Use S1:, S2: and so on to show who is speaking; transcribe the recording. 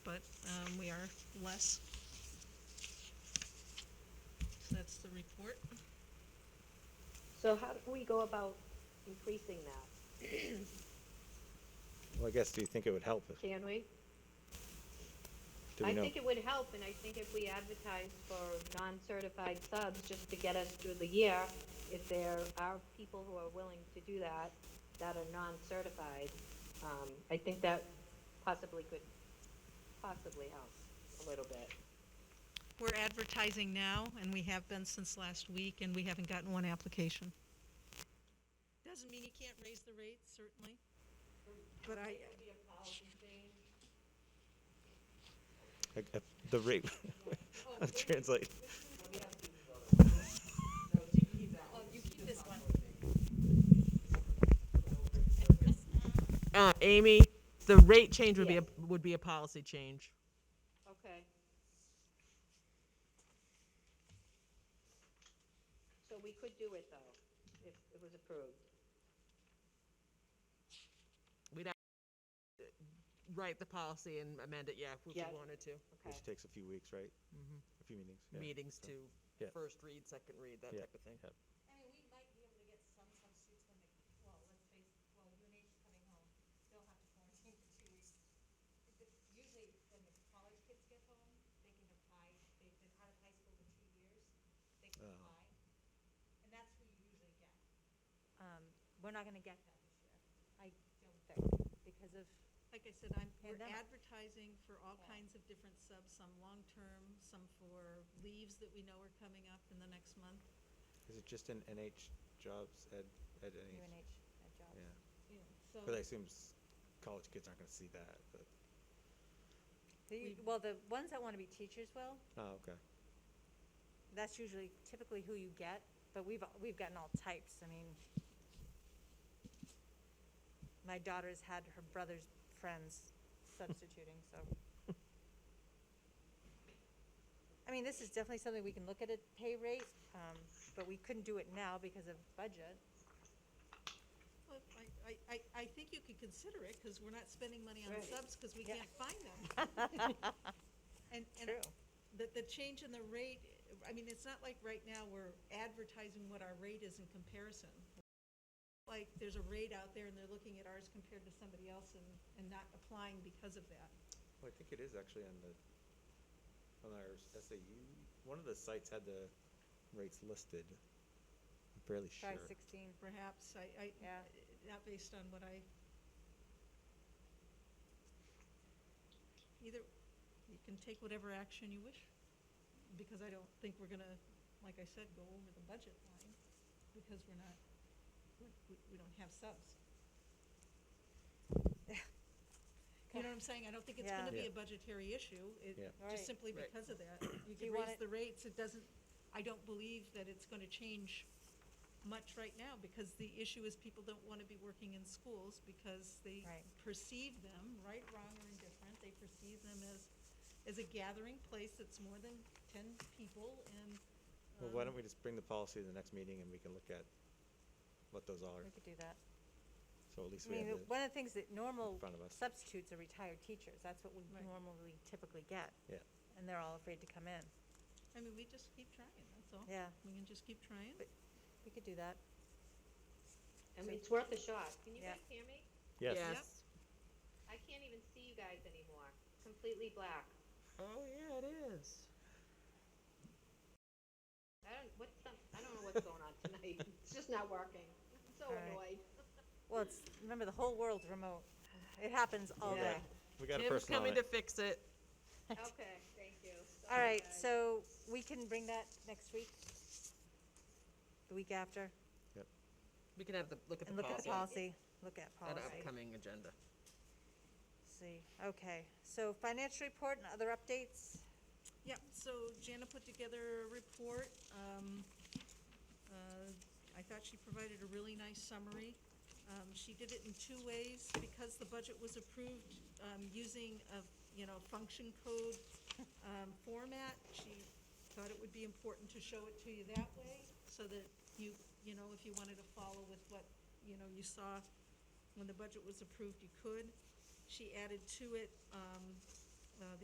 S1: um, are less. So that's the report.
S2: So how do we go about increasing that?
S3: Well, I guess, do you think it would help? if-
S2: Can we?
S3: Do we
S2: I
S3: know?
S2: think it would help, and I think if we advertise for non-certified subs, just to get us through the year, if there are people who are willing to do that, that are non-certified, um, I think that possibly could, possibly help a little bit.
S1: We're advertising now, and we have been since last week, and we haven't gotten one application. Doesn't mean you can't raise the rate, certainly, but I,
S3: Like, uh, The rate, translate.
S4: Uh, Amy, the rate change would be a, would be a policy change.
S2: Okay. So we could do it, though, if it was approved.
S4: Write the policy and amend it, yeah, if we
S2: Yes.
S4: wanted to.
S2: Okay,
S3: Which takes a few weeks, right? A few meetings. yeah.
S4: Meetings to
S3: Yeah.
S4: first read, second read, that
S3: Yeah.
S4: type of thing.
S3: Yeah.
S5: I mean, we might be able to get some substitutes when they, well, let's face, it, well, UNH is coming home, they'll have to quarantine for two weeks. If the- Usually, when the college kids get home, they can apply, they've been out of high school for two years, they can
S3: Oh.
S5: apply. And that's who you usually get.
S6: Um, we're not gonna get that this year. I don't think, because of,
S1: like I said, I'm, we're
S6: Pandemic.
S1: advertising for all kinds of different subs, some long-term, some for leaves that we know are coming up in the next month.
S3: Is it just in NH jobs, ed, ed NH?
S6: UNH had jobs.
S3: Yeah.
S1: Yeah, So,
S3: But I assume s- college kids aren't gonna see that, but,
S6: The- Well, the ones that wanna be teachers will,
S3: oh, okay.
S6: that's usually typically who you get, but we've, we've gotten all types, I mean. My daughter's had her brother's friends substituting, so. I mean, this is definitely something we can look at at pay rate, um, but we couldn't do it now because of budget.
S1: well, I- I, I, I think you could consider it, because we're not spending money on
S6: Right.
S1: subs, because we
S6: Yeah.
S1: can't find them. And, and
S6: True.
S1: the, the change in the rate, I mean, it's not like right now we're advertising what our rate is in comparison. Like, there's a rate out there and they're looking at ours compared to somebody else and, and not applying because of that.
S3: Well, I think it is actually on the, on our s- SAU, one of the sites had the rates listed. I'm barely sure.
S6: Try sixteen.
S1: Perhaps, I, I,
S6: Yeah.
S1: not based on what I. Either, you can take whatever action you wish, because I don't think we're gonna, like I said, go over the budget line, because we're not, we, we, we don't have subs. You know what I'm saying? I don't think it's
S6: Yeah.
S1: gonna be
S3: Yeah.
S1: a budgetary issue, it,
S3: Yeah.
S6: Right.
S1: just simply
S4: Right.
S1: because of that. You can
S6: you want
S1: raise
S6: it-
S1: the rates, it doesn't, I don't believe that it's gonna change much right now, because the issue is people don't wanna be working in schools because they
S6: Right.
S1: perceive them, right, wrong, or indifferent, they perceive them as, as a gathering place that's more than ten people, and,
S3: Well, why
S1: um,
S3: don't we just bring the policy to the next meeting and we can look at what those are,
S6: We could do that.
S3: so at least
S6: I
S3: we
S6: mean,
S3: have
S6: the-
S3: the,
S6: one of the things that normal
S3: front of us.
S6: substitutes are retired teachers. That's what we
S1: Right.
S6: normally typically get.
S3: yeah.
S6: And they're all afraid to come in.
S1: I mean, we just keep trying, that's all.
S6: Yeah.
S1: We can just keep trying.
S6: But- We could do that.
S2: I mean, it's worth a shot. Can you
S6: Yeah.
S2: guys hear me?
S3: Yes.
S4: Yes.
S2: I can't even see you guys anymore. Completely black.
S4: Oh, yeah, it is.
S2: I don't, what's some, I don't know what's going on tonight. It's just not working. I'm so
S6: All right.
S2: annoyed.
S6: Well, it's, remember, the whole world's remote. It happens all
S3: Yeah.
S6: day.
S3: We got a
S4: Tim's
S3: person on
S4: coming
S3: it.
S4: to fix it.
S2: Okay, thank you.
S6: All
S2: Sorry,
S6: right,
S2: guys.
S6: so we can bring that next week? The week after?
S4: We can have the, look at the
S6: And look at the
S4: policy,
S6: policy. Look at
S4: at
S6: policy.
S4: an upcoming agenda.
S6: See, okay. So financial report and other updates?
S1: Yep, so Jana put together a report. Um, uh, I thought she provided a really nice summary. Um, She did it in two ways, because the budget was approved um, using a, you know, function code um, format. She thought it would be important to show it to you that way, so that you, you know, if you wanted to follow with what, you know, you saw when the budget was approved, you could. She added to it um,